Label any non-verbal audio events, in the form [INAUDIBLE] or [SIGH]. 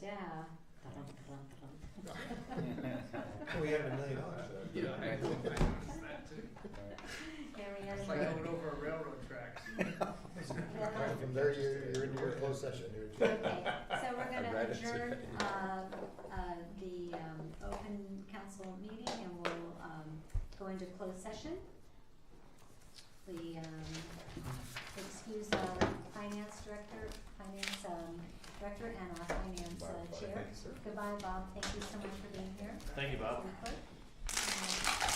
we had a million dollars though. Yeah, I, I noticed that too. Harry It's has like a- going over a railroad track. Right, [LAUGHS] From there, you're, you're in your closed session. You're- Okay, so we're gonna [LAUGHS] Right, that's adjourn, right. uh, uh, the, um, open council meeting and we'll, um, go into closed session. We, um, excuse our finance director, finance, um, uh, director and our finance uh, chair. Goodbye, Bob, thank you so much for being here. Thank you, Bob. Clerk.